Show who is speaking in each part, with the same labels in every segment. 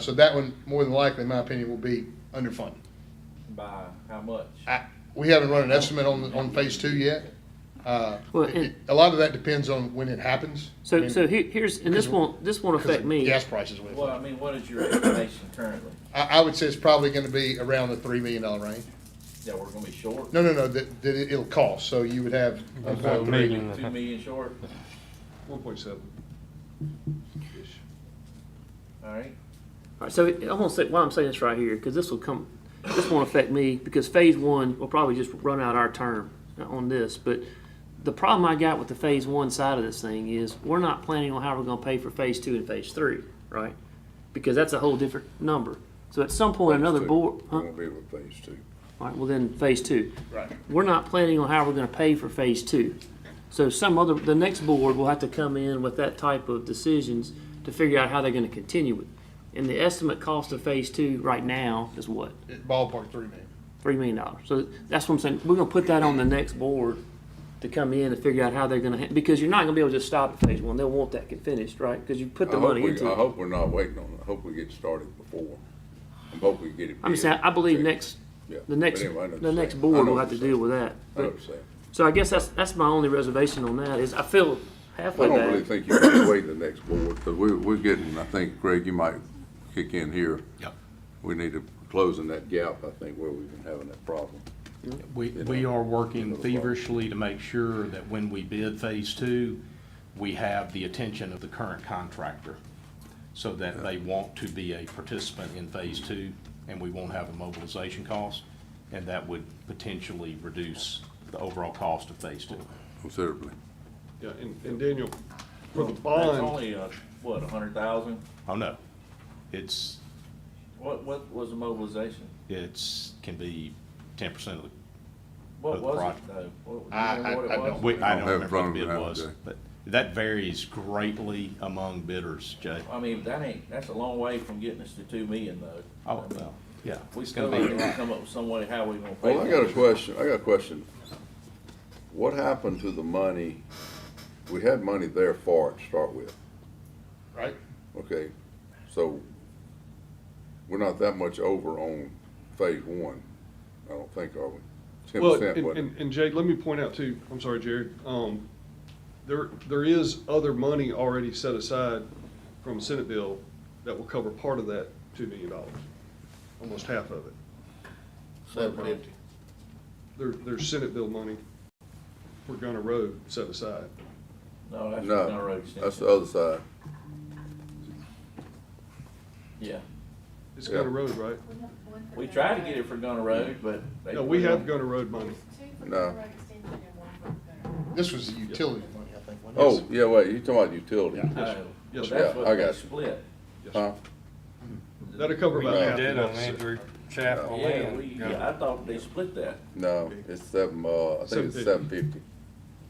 Speaker 1: So that one, more than likely, in my opinion, will be underfunded.
Speaker 2: By how much?
Speaker 1: I, we haven't run an estimate on, on phase two yet. Uh,
Speaker 3: Well,
Speaker 1: it-
Speaker 3: and-
Speaker 1: it- a lot of that depends on when it happens. I
Speaker 3: So,
Speaker 1: mean,
Speaker 3: so he- here's, and this won't, this won't
Speaker 1: 'cause
Speaker 3: affect
Speaker 1: of
Speaker 3: me.
Speaker 1: Gas prices. with it.
Speaker 2: Well, I mean, what is your estimation currently?
Speaker 1: I, I would say it's probably gonna be around the three million dollar range.
Speaker 2: That we're gonna be short?
Speaker 1: No, no, no, that, that it- it'll cost, so you would have one
Speaker 4: About a
Speaker 1: point three.
Speaker 4: million.
Speaker 2: Two million short,
Speaker 5: One point seven.
Speaker 2: alright?
Speaker 3: All right, so I'm gonna say, why I'm saying this right here, because this will come, this won't affect me, because phase one will probably just run out our term uh, on this, but the problem I got with the phase one side of this thing is, we're not planning on how we're gonna pay for phase two and phase three, right? Because that's a whole different number. So at some point, another board, huh?
Speaker 6: Won't be able to phase two.
Speaker 3: All right, well then, phase two.
Speaker 1: Right.
Speaker 3: We're not planning on how we're gonna pay for phase two. So some other, the next board will have to come in with that type of decisions to figure out how they're gonna continue it. And the estimate cost of phase two right now is what?
Speaker 1: Ballpark three million.
Speaker 3: Three million dollars. So that's what I'm saying, we're gonna put that on the next board to come in and figure out how they're gonna, ha- because you're not gonna be able to just stop at phase one, they'll want that finished, right? Because you put
Speaker 6: I
Speaker 3: the
Speaker 6: hope
Speaker 3: money
Speaker 6: we,
Speaker 3: into
Speaker 6: I
Speaker 3: it.
Speaker 6: hope we're not waiting on it. I hope we get started before. I hope we get it.
Speaker 3: I'm just saying, I believe next, the next, the next board will have to deal with that.
Speaker 6: I know what you're saying.
Speaker 3: So I guess that's, that's my only reservation on that, is I feel
Speaker 6: I
Speaker 3: halfway
Speaker 6: don't really
Speaker 3: bad.
Speaker 6: think you can wait the next board, because we, we're getting, I think, Greg, you might kick in here.
Speaker 4: Yep.
Speaker 6: We need to close in that gap, I think, where we've been having that problem.
Speaker 4: We, we are working feverishly to make sure that when we bid phase two, we have the attention of the current contractor so that they want to be a participant in phase two and we won't have a mobilization cost. And that would potentially reduce the overall cost of phase two.
Speaker 6: Considerably.
Speaker 5: Yeah, and, and Daniel, for the
Speaker 2: That's
Speaker 5: bond,
Speaker 2: only, uh, what, a hundred thousand?
Speaker 4: Oh, no. It's,
Speaker 2: What, what was the mobilization?
Speaker 4: it's, can be ten percent of the
Speaker 2: What
Speaker 4: Of the
Speaker 2: was it
Speaker 4: project.
Speaker 2: though? What- do you
Speaker 1: I-
Speaker 2: remember
Speaker 1: I-
Speaker 2: what it
Speaker 1: I don't-
Speaker 2: was?
Speaker 4: We, I
Speaker 6: I
Speaker 4: don't
Speaker 6: don't have it in
Speaker 4: remember what the
Speaker 6: front
Speaker 4: bid
Speaker 6: of me now,
Speaker 4: was,
Speaker 6: Jay.
Speaker 4: but that varies greatly among bidders, Jay.
Speaker 2: I mean, that ain't, that's a long way from getting us to two million though.
Speaker 4: Oh, well, yeah.
Speaker 2: We
Speaker 4: it's
Speaker 2: still
Speaker 4: gonna be-
Speaker 2: need to come up with some way how we gonna pay.
Speaker 6: Well, I
Speaker 2: for
Speaker 6: got a
Speaker 2: it.
Speaker 6: question, I got a question. What happened to the money? We had money there for it to start with.
Speaker 1: Right.
Speaker 6: Okay, so we're not that much over on phase one, I don't think, are we? Ten
Speaker 5: well,
Speaker 6: percent,
Speaker 5: and,
Speaker 6: what,
Speaker 5: and- and Jay, let me point out too, I'm sorry, Jared, um, there, there is other money already set aside from Senate bill that will cover part of that two million dollars, almost half of it.
Speaker 1: Seven fifty.
Speaker 5: There, there's Senate bill money for Gunner Road set aside.
Speaker 2: No, that's not a road
Speaker 6: no, that's the
Speaker 2: extension.
Speaker 6: other side.
Speaker 2: Yeah.
Speaker 5: It's
Speaker 6: Yeah.
Speaker 5: Gunner Road, right?
Speaker 2: We tried to get it for Gunner Road, but. they-
Speaker 5: No, we have Gunner Road money.
Speaker 6: No.
Speaker 1: This was the utility money, I think. wasn't it?
Speaker 6: Oh, yeah, wait, you're talking about utility,
Speaker 1: Yeah.
Speaker 2: No,
Speaker 5: Yes,
Speaker 2: but Uh, that's
Speaker 5: sir.
Speaker 6: Yeah,
Speaker 2: what
Speaker 6: I
Speaker 2: they
Speaker 6: got you.
Speaker 2: split.
Speaker 6: huh?
Speaker 5: That'll cover
Speaker 6: We
Speaker 5: about half
Speaker 7: did
Speaker 5: of
Speaker 7: on
Speaker 5: that.
Speaker 7: Andrew
Speaker 5: Oh,
Speaker 7: Chapel
Speaker 2: Yeah,
Speaker 7: Lane.
Speaker 2: we, yeah, I thought they split that.
Speaker 6: No, it's seven, uh, I think it's seven fifty.
Speaker 5: $750.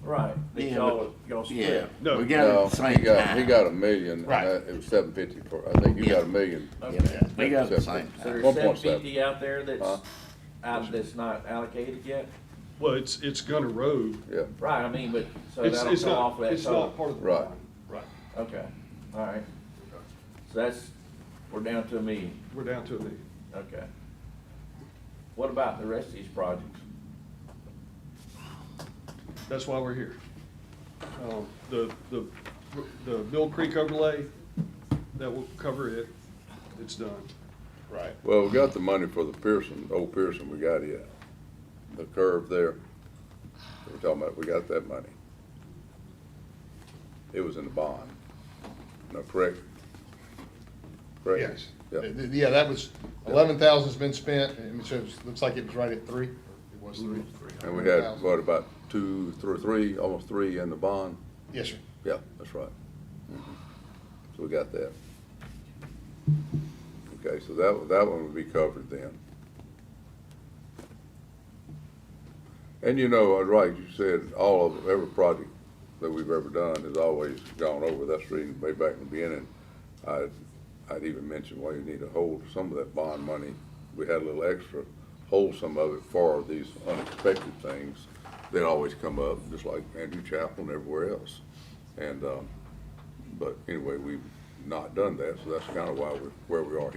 Speaker 2: Right. They
Speaker 8: Yeah,
Speaker 2: y'all, y'all
Speaker 8: Yeah,
Speaker 2: split.
Speaker 5: No.
Speaker 8: we got it
Speaker 6: No,
Speaker 8: at the same
Speaker 6: he got, he
Speaker 8: time.
Speaker 6: got a million, and
Speaker 1: Right.
Speaker 6: that- it was seven fifty for, I think you got a
Speaker 8: Yeah.
Speaker 6: million.
Speaker 2: Okay.
Speaker 8: We got it at the same time.
Speaker 2: So there's
Speaker 6: One
Speaker 2: seven
Speaker 6: point seven.
Speaker 2: fifty out there that's,
Speaker 6: Huh?
Speaker 2: out, that's not allocated yet?
Speaker 5: Well, it's, it's Gunner Road.
Speaker 6: Yeah,
Speaker 2: Right, I mean, but, so
Speaker 5: It's,
Speaker 2: that'll
Speaker 5: it's
Speaker 2: come off
Speaker 5: not,
Speaker 2: that
Speaker 5: it's not
Speaker 2: total.
Speaker 5: part of the.
Speaker 6: Right.
Speaker 5: bond. Right.
Speaker 2: Okay, all right. So that's, we're down to a million,
Speaker 5: We're down to a million.
Speaker 2: okay. What about the rest of these projects?
Speaker 5: That's why we're here. Um, The, the, the Mill Creek overlay, that will cover it. It's done.
Speaker 1: Right.
Speaker 6: well, we got the money for the Pearson, old Pearson, we got it, the curve there. We're talking about, we got that money. It was in the bond, no, correct? Correct?
Speaker 1: Yes.
Speaker 6: Yeah.
Speaker 1: Th- th- Yeah, that was, eleven thousand's been spent, and so it looks like it was right at three. It was three.
Speaker 6: And we had,
Speaker 1: 11,000.
Speaker 6: what, about two, thr- three, almost three in the bond?
Speaker 1: Yes, sir.
Speaker 6: Yeah, that's right. Mhm. So we got that. Okay, so that, one- that one would be covered then. And you know, uh, right, you said all of, every project that we've ever done has always gone over, that's the reason way back in the beginning. I, I'd even mentioned why you need to hold some of that bond money, we had a little extra, hold some of it for these unexpected things that always come up, just like Andrew Chapel and everywhere else. And, um, but anyway, we've not done that, so that's kind of why we're, where we are here.